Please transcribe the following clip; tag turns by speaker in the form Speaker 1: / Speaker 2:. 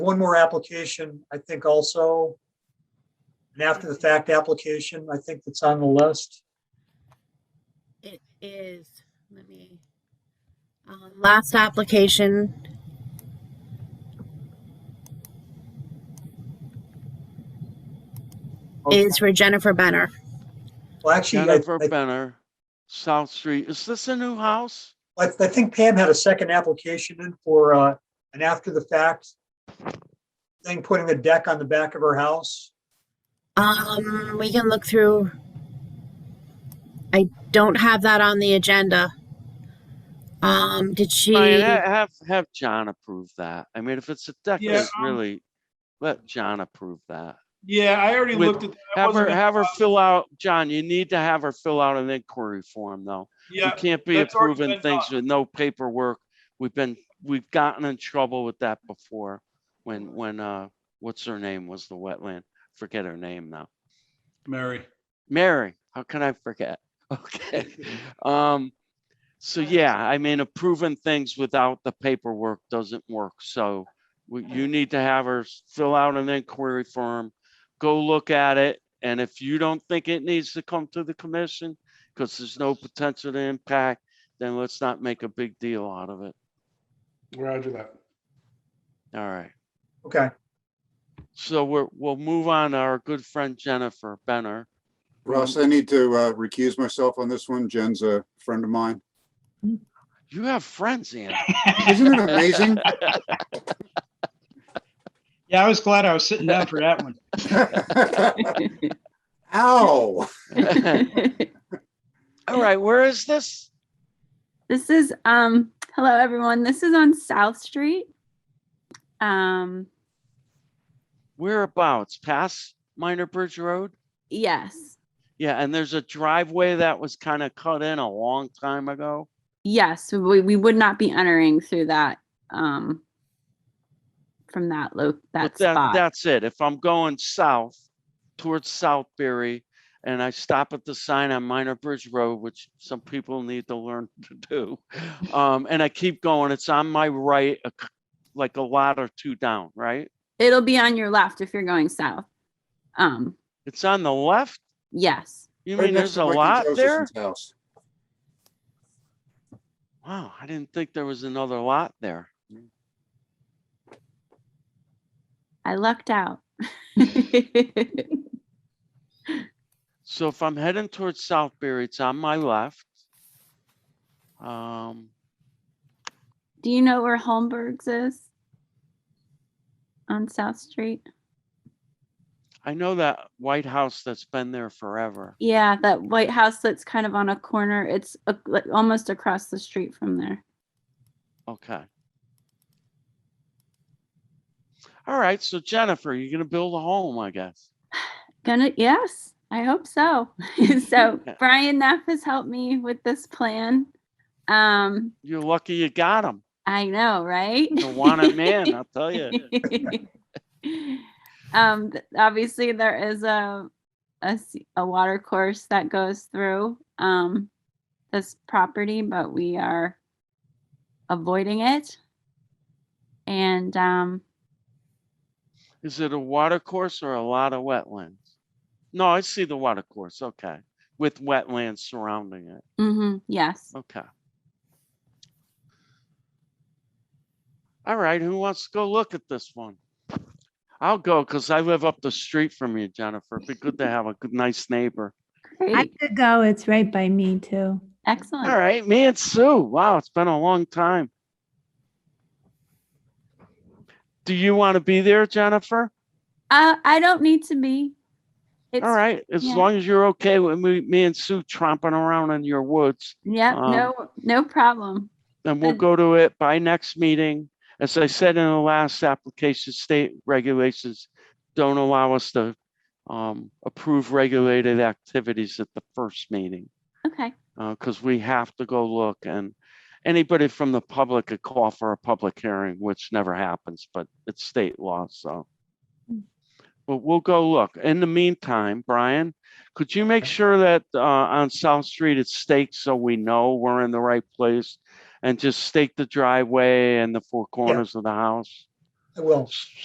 Speaker 1: one more application, I think also. An after the fact application, I think that's on the list.
Speaker 2: It is, let me, uh, last application. is for Jennifer Benner.
Speaker 1: Well, actually, I,
Speaker 3: Jennifer Benner, South Street. Is this a new house?
Speaker 1: I, I think Pam had a second application in for, uh, an after the fact. Thing, putting a deck on the back of her house.
Speaker 2: Um, we can look through. I don't have that on the agenda. Um, did she?
Speaker 3: Brian, ha- have, have John approve that. I mean, if it's a deck,
Speaker 4: Yeah,
Speaker 3: it's
Speaker 4: um,
Speaker 3: really, let John approve that.
Speaker 4: Yeah, I already
Speaker 3: With-
Speaker 4: looked at that. I
Speaker 3: Have
Speaker 4: wasn't
Speaker 3: her,
Speaker 4: gonna
Speaker 3: have her
Speaker 4: talk-
Speaker 3: fill out, John, you need to have her fill out an inquiry form though. You
Speaker 4: Yeah,
Speaker 3: can't be
Speaker 4: that's already
Speaker 3: approving
Speaker 4: been
Speaker 3: things
Speaker 4: done.
Speaker 3: with no paperwork. We've been, we've gotten in trouble with that before when, when, uh, what's her name was the wetland? Forget her name now.
Speaker 4: Mary.
Speaker 3: Mary, how can I forget? Okay. Um, so yeah, I mean, approving things without the paperwork doesn't work. So we- you need to have her s- fill out an inquiry form, go look at it. And if you don't think it needs to come to the commission, because there's no potential to impact, then let's not make a big deal out of it.
Speaker 4: Roger that.
Speaker 3: All right.
Speaker 1: Okay,
Speaker 3: So we're, we'll move on to our good friend Jennifer Benner.
Speaker 5: Ross, I need to uh, recuse myself on this one. Jen's a friend of mine.
Speaker 3: You have friends, Andy.
Speaker 5: Isn't it amazing?
Speaker 6: Yeah, I was glad I was sitting down for that one.
Speaker 5: Ow.
Speaker 3: All right, where is this?
Speaker 7: This is um hello everyone. This is on South Street. Um
Speaker 3: Whereabouts? Past Minor Bridge Road?
Speaker 7: yes.
Speaker 3: Yeah, and there's a driveway that was kind of cut in a long time ago.
Speaker 7: Yes, we, we would not be entering through that um from that lo- that
Speaker 3: But that,
Speaker 7: spot.
Speaker 3: that's it. If I'm going south towards Southbury and I stop at the sign on Minor Bridge Road, which some people need to learn to do. Um, and I keep going, it's on my right, a c- like a lot or two down, right?
Speaker 7: It'll be on your left if you're going south. Um
Speaker 3: It's on the left?
Speaker 7: yes.
Speaker 3: You
Speaker 5: Right
Speaker 3: mean
Speaker 5: next
Speaker 3: there's a
Speaker 5: to Mikey
Speaker 3: lot there?
Speaker 5: Josephson's house.
Speaker 3: Wow, I didn't think there was another lot there.
Speaker 7: I lucked out.
Speaker 3: So if I'm heading towards Southbury, it's on my left. Um,
Speaker 7: Do you know where Holmberg's is? On South Street?
Speaker 3: I know that White House that's been there forever.
Speaker 7: Yeah, that White House that's kind of on a corner. It's a, like almost across the street from there.
Speaker 3: Okay. All right, so Jennifer, you're gonna build a home, I guess.
Speaker 7: Gonna yes, I hope so. so
Speaker 3: Yeah.
Speaker 7: Brian Neff has helped me with this plan. Um,
Speaker 3: You're lucky you got him.
Speaker 7: I know, right?
Speaker 3: The wanted man, I'll tell you.
Speaker 7: um, th- obviously there is a, a s- a water course that goes through um this property, but we are avoiding it. And um,
Speaker 3: Is it a water course or a lot of wetlands? No, I see the water course, okay, with wetlands surrounding it,
Speaker 7: hmm yes.
Speaker 3: okay. All right, who wants to go look at this one? I'll go, cause I live up the street from you, Jennifer. It'd Be good to have a good, nice neighbor.
Speaker 8: I
Speaker 7: Great.
Speaker 8: could go. It's right by me too.
Speaker 7: Excellent.
Speaker 3: All right, me and Sue. Wow, it's been a long time. Do you want to be there, Jennifer?
Speaker 7: Uh, I don't need to be. It's,
Speaker 3: All right, as
Speaker 7: yeah.
Speaker 3: long as you're okay with me, me and Sue tromping around in your woods,
Speaker 7: Yep.
Speaker 3: um,
Speaker 7: no, no problem.
Speaker 3: then we'll
Speaker 7: And-
Speaker 3: go to it by next meeting. As I said in the last application, state regulations don't allow us to um, approve regulated activities at the first meeting.
Speaker 7: Okay.
Speaker 3: because uh, we have to go look and anybody from the public could call for a public hearing, which never happens, but it's state law, so.
Speaker 8: Mm.
Speaker 3: But we'll go look. In the meantime, Brian, could you make sure that uh, on South Street it's staked so we know we're in the right place? And just stake the driveway and the four corners of the house?
Speaker 1: I will.